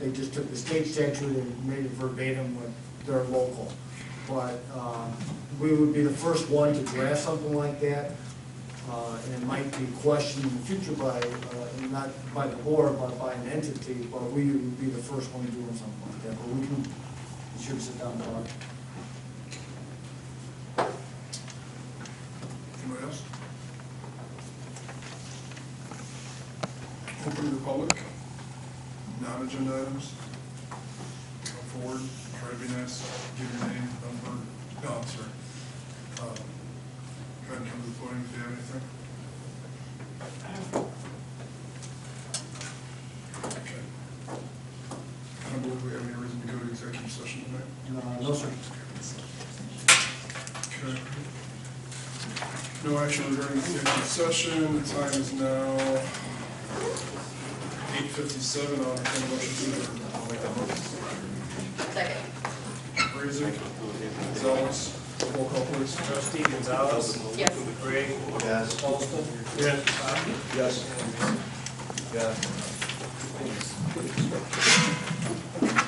They just took the state statute and made it verbatim with their local. But um, we would be the first one to draft something like that, uh, and it might be questioned in the future by, uh, not by the board, but by an entity, but we would be the first one doing something like that. But we can, we should sit down and talk. Anyone else? Open to the public, non-agenda items. Come forward, try to be nice, give your name, number, no, I'm sorry. Um, Go ahead and come to the podium if you have anything. Okay. I don't believe we have any reason to go to executive session tonight. Uh, No, sir. Okay. No action regarding the executive session, the time is now eight fifty-seven, I'll entertain a motion to adjourn. I'll make that motion. Second. Raising, Gonzalez, roll call please. Trustee Gonzalez. Yes. Gray. Yes. Paulson. Yes. Yes. Yeah.